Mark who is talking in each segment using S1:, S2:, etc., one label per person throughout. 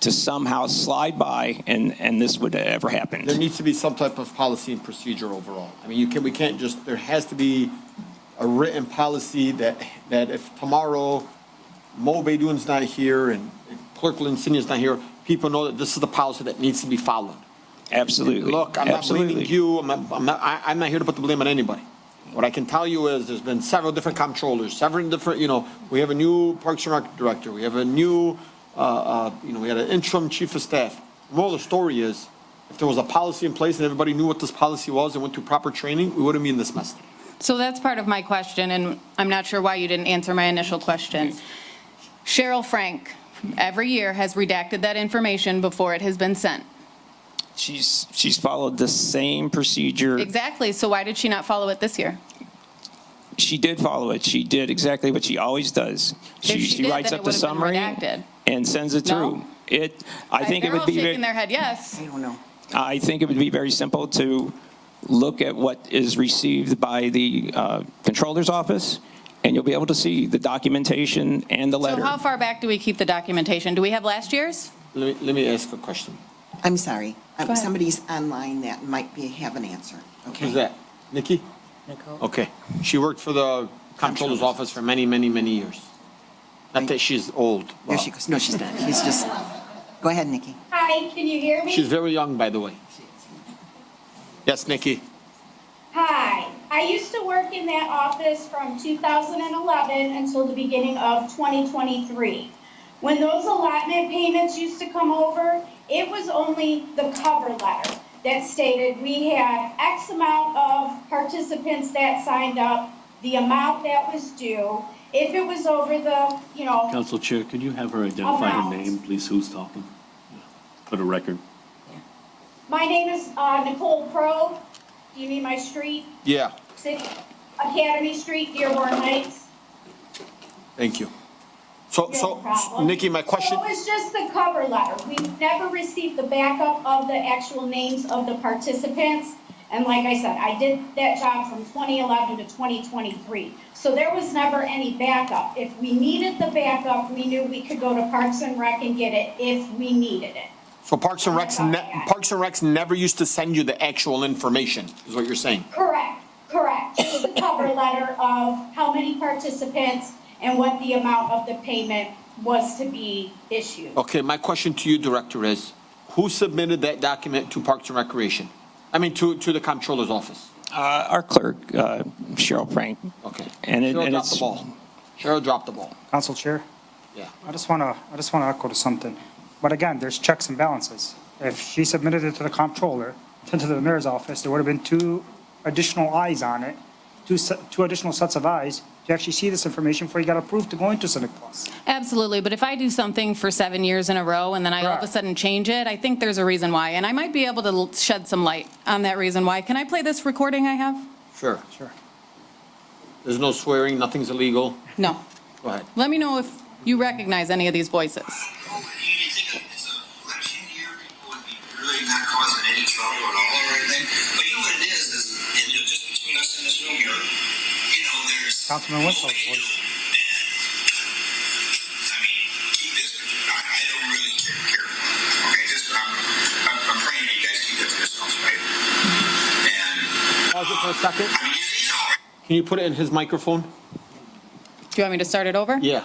S1: to somehow slide by and, and this would ever happen.
S2: There needs to be some type of policy and procedure overall. I mean, you can, we can't just, there has to be a written policy that, that if tomorrow Mo Bedun's not here and Clerk Lincinia's not here, people know that this is the policy that needs to be followed.
S1: Absolutely.
S2: Look, I'm not
S1: Absolutely.
S2: blaming you, I'm not, I'm not, I, I'm not here to put the blame on anybody. What I can tell you is, there's been several different comptrollers, several different, you know, we have a new Parks and Rec director, we have a new, uh, uh, you know, we had an interim chief of staff. Moral of the story is, if there was a policy in place and everybody knew what this policy was and went through proper training, we wouldn't be in this mess.
S3: So that's part of my question, and I'm not sure why you didn't answer my initial question. Cheryl Frank, every year, has redacted that information before it has been sent.
S1: She's, she's followed the same procedure.
S3: Exactly, so why did she not follow it this year?
S1: She did follow it. She did exactly what she always does. She,
S3: she
S1: she
S3: did,
S1: writes
S3: then
S1: up
S3: it
S1: the
S3: would've been
S1: summary
S3: redacted.
S1: and sends it
S3: No?
S1: through. It, I think it would be.
S3: They're all
S1: ve-
S3: shaking their head, yes.
S4: I don't know.
S1: I think it would be very simple to look at what is received by the uh, Controller's Office, and you'll be able to see the documentation and the
S3: So
S1: letter.
S3: how far back do we keep the documentation? Do we have last year's?
S2: Let me, let me ask a question.
S4: I'm sorry. Um,
S3: ahead.
S4: Somebody's online that might be, have an answer.
S2: Who's
S4: Okay.
S2: that? Nikki? Okay. She worked for the comptroller's office for many, many, many years. Not that she's old.
S4: There she goes. No, she's not. She's just, go ahead, Nikki.
S5: Hi, can you hear me?
S2: She's very young, by the way. Yes, Nikki.
S5: Hi, I used to work in that office from 2011 until the beginning of 2023. When those allotment payments used to come over, it was only the cover letter that stated we had X amount of participants that signed up, the amount that was due. If it was over the, you know,
S6: Council Chair, could you have her identify her
S5: Alright.
S6: name, please, who's talking? For the record.
S5: my name is uh, Nicole Pro. Do you need my street?
S2: Yeah,
S5: City- Academy Street, Dearborn Heights.
S2: thank you. So,
S5: No
S2: so,
S5: problem.
S2: Nikki, my question,
S5: So it was just the cover letter. We never received the backup of the actual names of the participants. And like I said, I did that job from 2011 to 2023. So there was never any backup. If we needed the backup, we knew we could go to Parks and Rec and get it if we needed it.
S2: so Parks and Recs, ne- Parks and Recs never used to send you the actual information, is what you're saying?
S5: Correct, correct. Just the cover letter of how many participants and what the amount of the payment was to be issued.
S2: Okay, my question to you, Director, is who submitted that document to Parks and Recreation? I mean, to, to the comptroller's office?
S1: Uh, Our clerk, uh, Cheryl Frank.
S2: Okay.
S1: And it-
S2: Cheryl
S1: and
S2: dropped the
S1: it's,
S2: ball. Cheryl dropped the ball,
S7: Council Chair,
S2: yeah.
S7: I just want to, I just want to echo to something. But again, there's checks and balances. If she submitted it to the comptroller, then to the mayor's office, there would have been two additional eyes on it, two, se- two additional sets of eyes to actually see this information before you got approved to go into Civic Plus.
S3: Absolutely, but if I do something for seven years in a row and then I all of a
S7: Correct.
S3: sudden change it, I think there's a reason why, and I might be able to l- shed some light on that reason why. Can I play this recording I have?
S2: Sure.
S7: Sure.
S2: There's no swearing, nothing's illegal.
S3: No.
S2: Go ahead.
S3: Let me know if you recognize any of these voices.
S8: Really not causing any trouble at all or anything. But you know what it is, is, and you're just between us in this room here, you know, there's.
S7: Councilman Winslow's voice.
S8: I mean, keep this, I, I don't really care, care. Okay, just, I'm, I'm, I'm praying you guys keep this to yourselves, right? And,
S2: Pause it for a second.
S8: I mean, you know,
S2: Can you put it in his microphone?
S3: Do you want me to start it over?
S2: Yeah.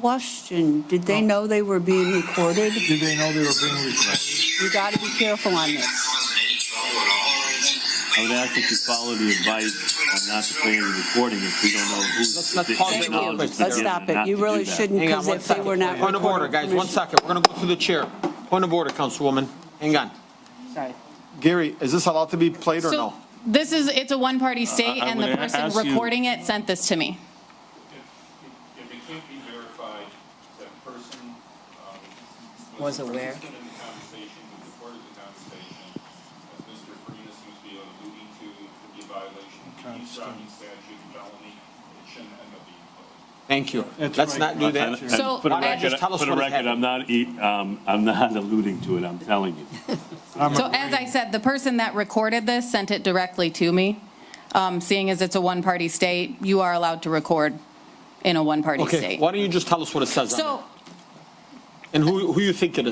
S9: Question, did they know they were being recorded?
S10: Did they know they were being recorded?
S9: You got to be careful on
S8: not
S9: this.
S8: causing any trouble at all or anything. But
S6: I
S8: you
S6: would
S8: know
S6: ask
S8: what
S6: that
S8: it
S6: you
S8: is,
S6: follow
S8: is
S6: the
S8: you're just
S6: advice
S8: between us
S6: on
S8: in
S6: not
S8: this
S6: to
S8: room
S6: play the
S8: here.
S6: recording if we don't know who's.
S2: Let's- let's
S6: if
S2: pause
S6: they
S2: it
S9: Thank
S2: now.
S9: you.
S6: acknowledge
S9: Let's
S6: together
S9: stop
S6: not
S9: it. You
S6: to
S9: really
S6: do that.
S9: shouldn't,
S2: Hang on
S9: because
S2: one
S9: if they
S2: second.
S9: were not
S2: Point of order,
S9: recorded.
S2: guys, one
S9: Commissioner-
S2: second. We're going to go through the chair. Point of order, Councilwoman. Hang on.
S9: Sorry.
S2: Gary, is this allowed to be played or
S3: So
S2: no?
S3: this is, it's a one-party state,
S6: I
S3: and the
S6: would
S3: person
S6: ask you-
S3: recording it sent this to me.
S11: If it can't be verified, that person. um,
S9: Was
S11: the
S9: aware.
S11: participant in the conversation, was a part of the conversation, as Mr. Farias seems to be alluding to, it could be a violation of the driving statute, felony, it shouldn't end up being closed.
S2: Thank you.
S10: That's
S2: Let's
S10: right.
S2: not do
S6: And-
S2: that.
S6: and
S3: So-
S6: For the
S3: Why not
S6: record,
S2: just tell us
S6: for the
S2: what
S6: record, I'm not, eat- um, I'm not alluding to it, I'm telling you.
S3: So as I said, the person that recorded this sent it directly to me. Um, Seeing as it's a one-party state, you are allowed to record in a one-party
S2: Okay,
S3: state.
S2: why don't you just tell us what it says on
S3: So
S2: it? And who, who you think it is?